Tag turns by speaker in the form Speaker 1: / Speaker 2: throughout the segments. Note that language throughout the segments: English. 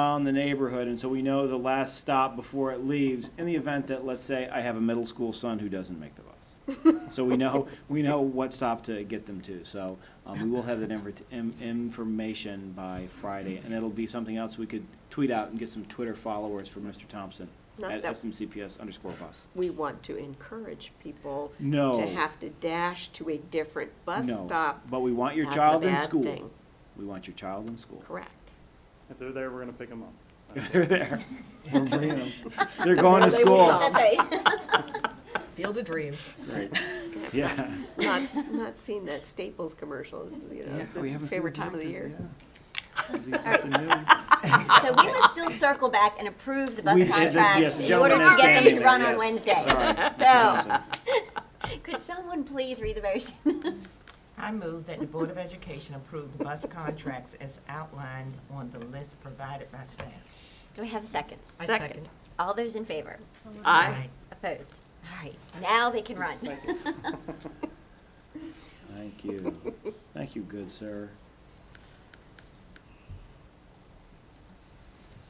Speaker 1: around the neighborhood, and so we know the last stop before it leaves, in the event that, let's say, I have a middle school son who doesn't make the bus. So we know, we know what stop to get them to, so, um, we will have that infor- im- information by Friday, and it'll be something else we could tweet out and get some Twitter followers for Mr. Thompson
Speaker 2: Not
Speaker 1: at
Speaker 2: that-
Speaker 1: SMCPS underscore bus.
Speaker 2: We want to encourage people
Speaker 1: No.
Speaker 2: to have to dash to a different bus
Speaker 1: No,
Speaker 2: stop.
Speaker 1: But we want your
Speaker 2: That's a
Speaker 1: child in
Speaker 2: bad
Speaker 1: school.
Speaker 2: thing.
Speaker 1: We want your child in school.
Speaker 2: Correct.
Speaker 3: If they're there, we're gonna pick them up.
Speaker 1: If they're there, we're bringing them. They're going to
Speaker 2: They will
Speaker 1: school.
Speaker 2: come.
Speaker 4: That's right.
Speaker 5: Field of Dreams.
Speaker 1: Right. Yeah.
Speaker 2: Not, not seen that Staples commercial, you know, the favorite time of the year.
Speaker 4: So we must still circle back and approve the bus
Speaker 1: We- uh, the- yes,
Speaker 4: contracts
Speaker 1: the
Speaker 4: in order
Speaker 1: gentleman
Speaker 4: to
Speaker 1: is
Speaker 4: get them
Speaker 1: standing
Speaker 4: to run
Speaker 1: there,
Speaker 4: on Wednesday.
Speaker 1: yes. Sorry, Mr.
Speaker 4: So,
Speaker 1: Johnson.
Speaker 4: could someone please read the motion?
Speaker 6: I move that the Board of Education approve the bus contracts as outlined on the list provided by staff.
Speaker 4: Do we have seconds?
Speaker 6: I
Speaker 2: Second.
Speaker 4: All those in favor?
Speaker 2: Aye.
Speaker 4: Opposed? All right, now they can run.
Speaker 1: Thank you. Thank you, good sir.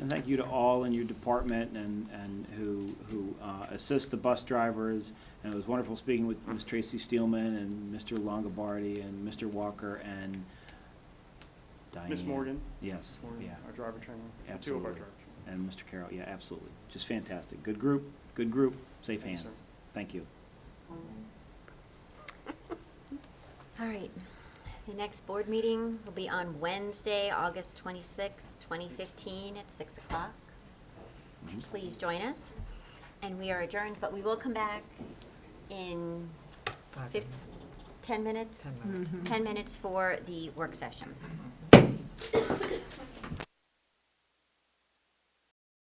Speaker 1: And thank you to all in your department and, and who, who uh, assist the bus drivers. And it was wonderful speaking with Ms. Tracy Steelman and Mr. Longobardi and Mr. Walker and Diane.
Speaker 3: Miss Morgan,
Speaker 1: Yes,
Speaker 3: Morgan,
Speaker 1: yeah.
Speaker 3: our driver trainer, two of
Speaker 1: Absolutely.
Speaker 3: our driver trainers.
Speaker 1: And Mr. Carroll, yeah, absolutely. Just fantastic. Good group, good group, safe
Speaker 3: Thanks,
Speaker 1: hands.
Speaker 3: sir.
Speaker 1: Thank you.
Speaker 4: All right, the next board meeting will be on Wednesday, August twenty-sixth, twenty fifteen, at six o'clock. Please join us, and we are adjourned, but we will come back in
Speaker 6: Five
Speaker 4: fif- ten minutes?
Speaker 6: Ten minutes.
Speaker 4: 10 minutes for the work session.